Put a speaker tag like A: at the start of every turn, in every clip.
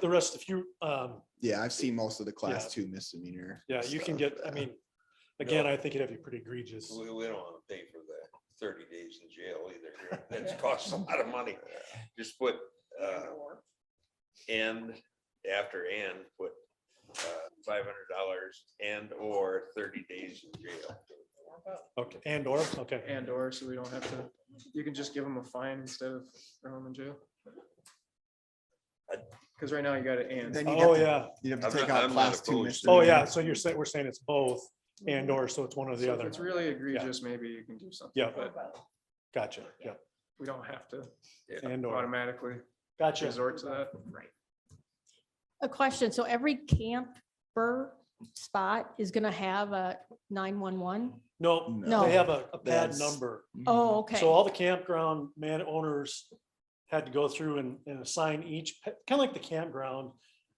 A: the rest, if you, um,
B: Yeah, I've seen most of the class
A: Yeah.
B: two misdemeanor.
A: yeah, you can
B: stuff,
A: get, I
B: yeah.
A: mean, again, I think it'd have to be pretty egregious.
C: We, we don't wanna pay for the thirty days in jail either. That's costs a lot of money. Just put, uh, and after and put, uh, five hundred dollars and or thirty days in jail.
A: Okay, and or, okay.
D: And or, so we don't have to, you can just give them a fine instead of throwing them in jail. Cause right now you got to and.
B: Then you
A: Oh,
B: get the-
A: yeah.
B: You'd have
C: I'm
B: to take
C: not-
B: out
C: I'm not
B: class two
C: opposed to
A: Oh,
B: misdemeanor.
A: yeah. So you're saying, we're saying it's both and or, so it's one or the
D: So if
A: other.
D: It's really egregious, maybe you can do something.
A: Yeah.
D: But
A: Gotcha. Yeah.
D: we don't have to
A: And or,
D: automatically
A: gotcha.
D: resort to that.
E: A question. So every camper spot is gonna have a nine-one-one?
A: No,
E: No.
A: they have a a pad
B: That's-
A: number.
B: Mm-hmm.
E: Oh, okay.
A: Mm-hmm. So all the campground man owners had to go through and, and assign each, kind of like the campground.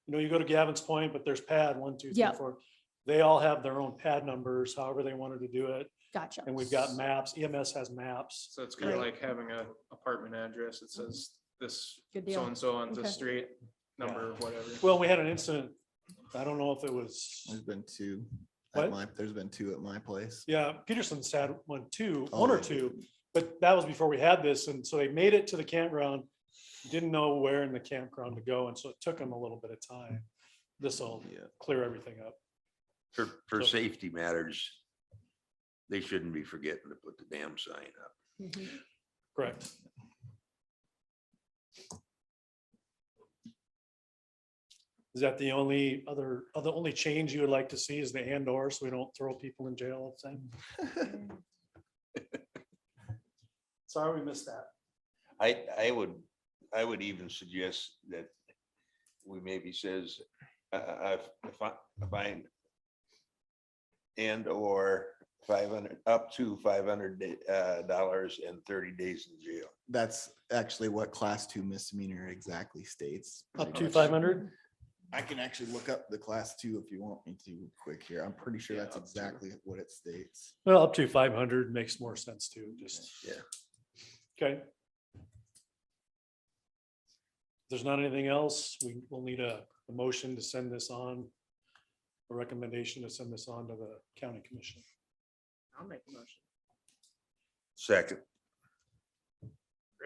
A: You know, you go to Gavin's Point, but there's pad one, two, three,
E: Yep.
A: four. They all have their own pad numbers, however they wanted to do it.
E: Gotcha.
A: And we've got maps, EMS has maps.
D: So it's kind of
E: Right.
D: like having a apartment address that says this
E: Good
D: so
E: deal.
D: and so on the
E: Okay.
D: street, number, whatever.
A: Well, we had an incident, I don't know if it was,
B: There's been two.
A: What?
B: At my, there's been two at my place.
A: yeah, Peterson's had one too, one or
B: Oh.
A: two. But that was before we had this, and so they made it to the campground, didn't know where in the campground to go, and so it took them a little bit of time. This'll
B: Yeah.
A: clear everything up.
C: For, for
A: So-
C: safety matters, they shouldn't be forgetting to put the damn sign up.
E: Mhm.
A: Correct. Is that the only other, uh, the only change you would like to see is the and or, so we don't throw people in jail all the time? Sorry, we missed that.
C: I, I would, I would even suggest that we maybe says, uh, uh, if I, if I and or five hundred, up to five hundred, uh, dollars and thirty days in jail.
B: That's actually what class two misdemeanor exactly states.
A: Up
B: pretty
A: to
B: much.
A: five hundred?
B: I can actually look up the class two if you want me to quick here. I'm pretty sure
D: Yeah,
B: that's
D: up to.
B: exactly what it states.
A: Well, up to five hundred makes more sense too, just.
C: Yeah.
A: Okay. If There's not anything else, we will need a, a motion to send this on, a recommendation to send this on to the county commission.
D: I'll make a motion.
C: Second.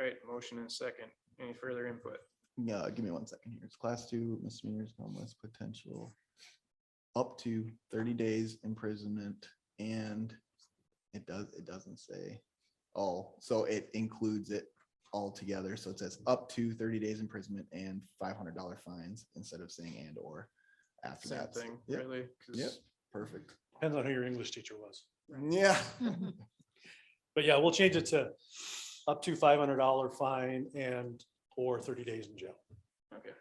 D: Right, motion and second. Any further input?
B: No, give me one second here. It's class two misdemeanors, no less potential. Up to thirty days imprisonment and it does, it doesn't say all, so it includes it all together. So it says up to thirty days imprisonment and five hundred dollar fines instead of saying and or after
D: Same
B: that.
D: thing,
B: Yeah,
D: really? 'cause
B: Yep. perfect.
A: Depends on who your English teacher was.
B: Yeah.
A: Mm-hmm.
E: Mhm.
A: But yeah, we'll change it to up to five hundred dollar fine and or thirty days in jail.
D: Okay,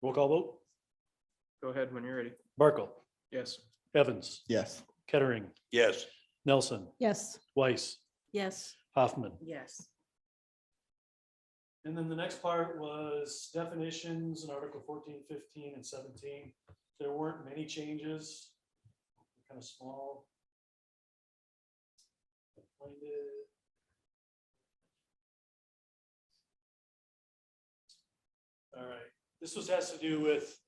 A: Roll call vote.
D: go ahead when you're ready.
A: Barkle,
D: Yes.
A: Evans,
B: Yes.
A: Kettering,
C: Yes.
A: Nelson,
E: Yes,
A: Weiss,
F: Yes.
A: Hoffman.
F: Yes.
A: And then the next part was definitions in Article 14, 15, and seventeen. There weren't many changes. Kind of small. Find it. All right, this was, has to do with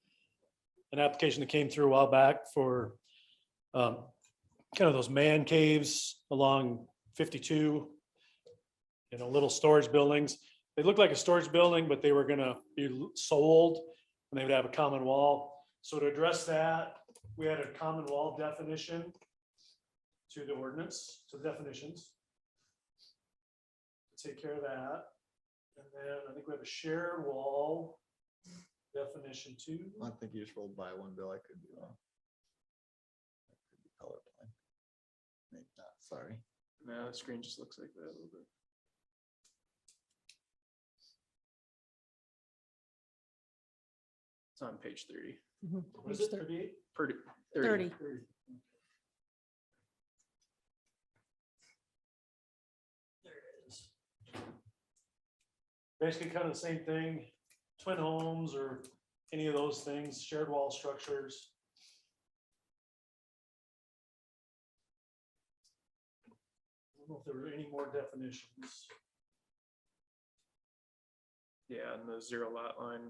A: an application that came through a while back for um, kind of those man caves along fifty-two. You know, little storage buildings they looked like a storage building, but they were gonna be l- sold and they would have a common wall. So to address that, we had a common wall definition to the ordinance, to the definitions. Take care of that. And then I think we have a shared wall definition too.
B: I think you just rolled by one bill. I could be wrong. I could be colorblind. Maybe not, sorry.
D: No, the screen just looks like that a little bit. It's on page thirty.
E: Mhm.
A: What is it, 38?
D: Pretty.
E: thirty.
A: There it is. Basically kind of the same thing, twin homes or any of those things, shared wall structures. I don't know if there were any more definitions.
D: Yeah, and the zero lot line